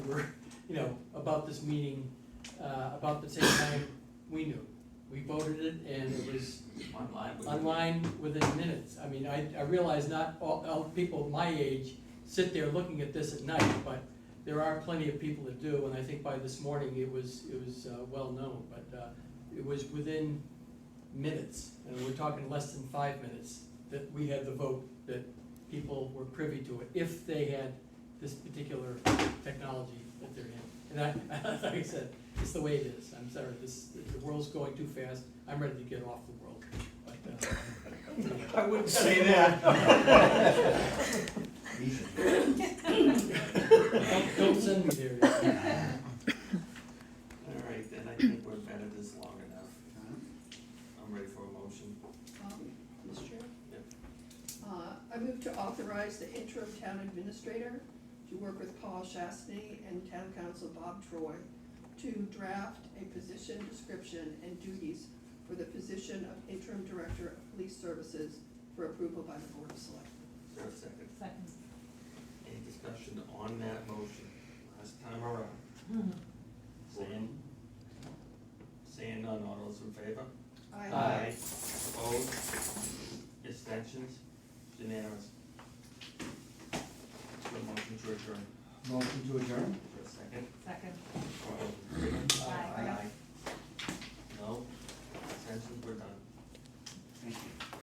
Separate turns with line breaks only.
over, you know, about this meeting, uh, about the same time we knew. We voted it and it was
Online. we-
online within minutes. I mean, I, I realize not all, all people my age sit there looking at this at night, but there are plenty of people that do, and I think by this morning it was, it was, uh, well known, but, uh, it was within minutes, and we're talking less than five minutes, that we had the vote, that people were privy to it, if they had this particular technology at their hand. And I, like I said, it's the way it is, I'm sorry, this, the world's going too fast, I'm ready to get off the world, but, uh,
I wouldn't say that.
Easy.
don't, don't send me there.
All right, then I think we've been at this long enough. I'm ready for a motion.
Um, Mr. Chair?
Yep.
Uh, I move to authorize the interim town administrator to work with Paul Chastney and town council Bob Troy to draft a position description and duties for the position of interim director of police services for approval by the board of selectmen.
Is there a second?
Second.
Any discussion on that motion? Last time around.
Mm-hmm.
Seeing, seeing none, all those in favor?
Aye.
Opposed? Abstentions? Unanimous. The motion to adjourn.
Motion to adjourn?
For a second.
Second.
All those in favor?
Aye.
No? Abstentions, we're done.
Thank you.